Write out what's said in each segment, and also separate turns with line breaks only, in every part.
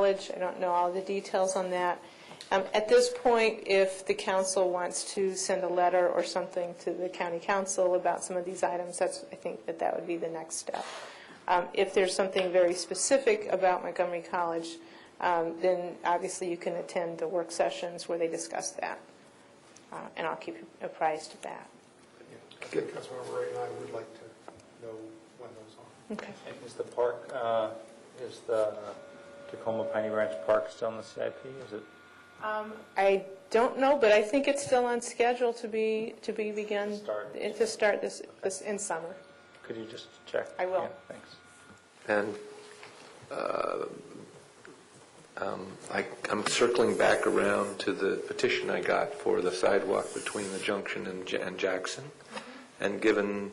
village. I don't know all the details on that. Um, At this point, if the council wants to send a letter or something to the county council about some of these items, that's, I think that that would be the next step. Um, If there's something very specific about Montgomery College, um, then obviously you can attend the work sessions where they discuss that, Uh, and I'll keep you apprised of that.
I think Councilmember Ray and I would like to know when those are.
Okay.
And Is the park, uh, is the Tacoma Piney Ranch Park still in the CIP? Is it,
Um, I don't know, but I think it's still on schedule to be, to be begun.
Start.
To start this, this in summer.
could you just check?
I will.
Yeah, Thanks.
And uh, um, I- I'm circling back around to the petition I got for the sidewalk between the junction and Ja- and Jackson. And given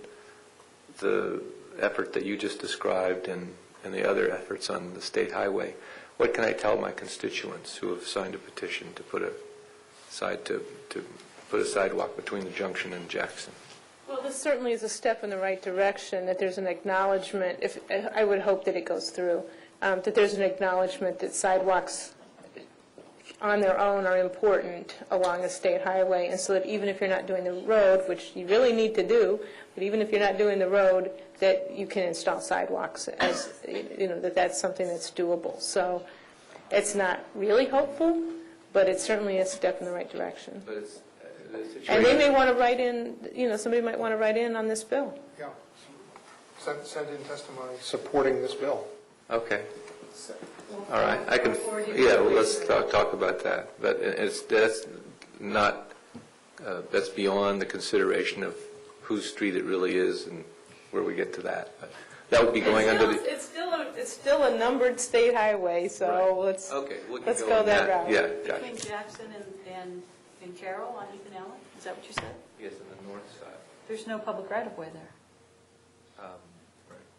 the effort that you just described and and the other efforts on the state highway, what can I tell my constituents who have signed a petition to put a side, to to put a sidewalk between the junction and Jackson?
Well, this certainly is a step in the right direction, that there's an acknowledgement, if, I would hope that it goes through, um, that there's an acknowledgement that sidewalks on their own are important along a state highway, and so that even if you're not doing the road, which you really need to do, but even if you're not doing the road, that you can install sidewalks as, you know, that that's something that's doable. So it's not really hopeful, but it's certainly a step in the right direction.
But it's, uh, the situation...
And they may want to write in, you know, somebody might want to write in on this bill.
Yeah. Send, send in testimony supporting this bill.
Okay. All right, I can, yeah, well, let's talk, talk about that, but it- it's, that's not, uh, that's beyond the consideration of whose street it really is and where we get to that. But That would be going under the.
It's still, a- it's still a numbered state highway, so let's,
Okay. we can
let's go
on
that route.
Yeah,
Between
gotcha.
Jackson and, and, and Carroll on Ethan Allen? Is that what you said?
Yes, on the north side. Um,
There's no public right-of-way there.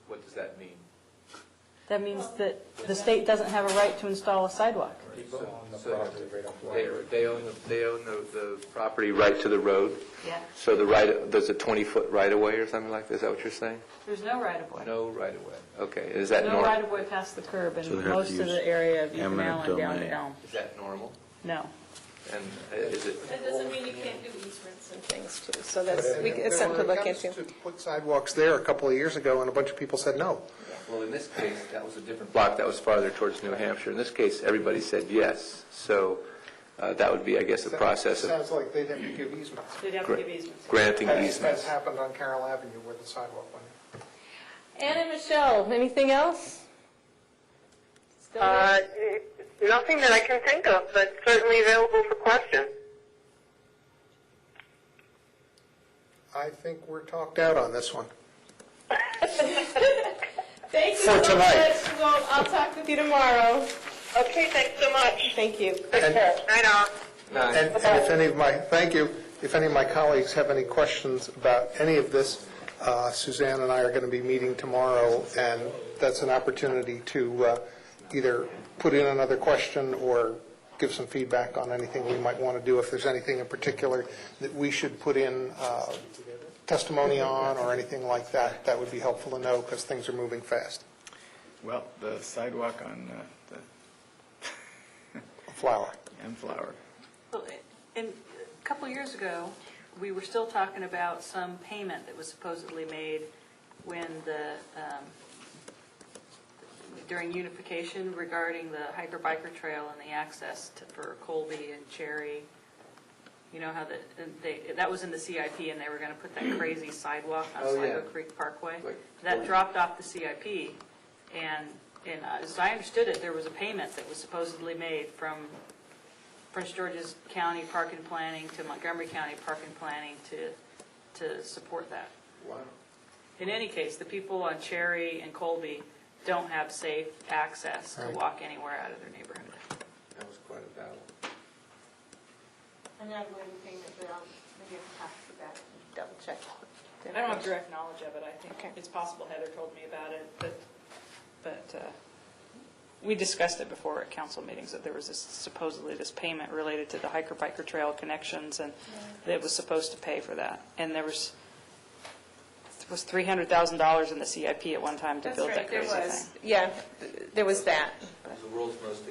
What does that mean?
That means that the state doesn't have a right to install a sidewalk.
People on the property right off the
They, they own, the- they own the, the property right to the road,
Yeah.
so the right, there's a 20-foot right-of-way or something like, is that what you're saying?
There's no right-of-way.
No right-of-way, okay, is that
No
normal?
right-of-way past the curb
So they
in
have to
most of
use
the area of Ethan
eminent
Allen down to
domain.
Elm.
Is that normal?
No.
And uh, is it,
That doesn't mean you can't do easements and things too, so that's, we- it's
And
something to
when it
look
comes
into.
to Put sidewalks there a couple of years ago, and a bunch of people said no.
well, in this case, that was a different block, that was farther towards New Hampshire. In this case, everybody said yes, so uh, that would be, I guess, a process of
Sounds like they'd have to give easements.
They'd have
to give granting
That's- That's
easements.
happened on Carroll Avenue where the sidewalk went.
Anna Michelle, anything else? Still there?
Uh, n- nothing that I can think of, but certainly available for question.
I think we're talked out on this one.
Thank you
for
so much.
tonight.
Well, I'll talk with you tomorrow.
Okay, thanks so much.
Thank you.
And-
Night off.
And and if any of my, thank you, if any of my colleagues have any questions about any of this, uh, Suzanne and I are going to be meeting tomorrow, and that's an opportunity to uh, either put in another question or give some feedback on anything we might want to do, if there's anything in particular that we should put in uh, testimony on or anything like that, that would be helpful to know, because things are moving fast.
Well, the sidewalk on uh, the
Flower.
M Flower.
Well, And a couple of years ago, we were still talking about some payment that was supposedly made when the, um, during unification regarding the hiker biker trail and the access to- for Colby and Cherry. You know how that, and they, that was in the CIP and they were going to put that crazy sidewalk on
Oh, yeah.
Sligo Creek Parkway.
Like-
That dropped off the CIP. And, and as I understood it, there was a payment that was supposedly made from Prince George's County Park and Planning to Montgomery County Park and Planning to, to support that. In any case, the people on Cherry and Colby don't have safe access to
Right.
walk anywhere out of their neighborhood.
That was quite a battle.
I'm not going to pay it, but I'll maybe talk about it, double check.
I don't have direct knowledge of it, I
Okay.
think it's possible Heather told me about it, but, but uh, we discussed it before at council meetings, that there was this- supposedly this payment related to the hiker biker trail connections, and that was supposed to pay for that. And there was, was $300,000 in the CIP at one time to build that crazy thing.
Yeah, there was that.
It was the world's most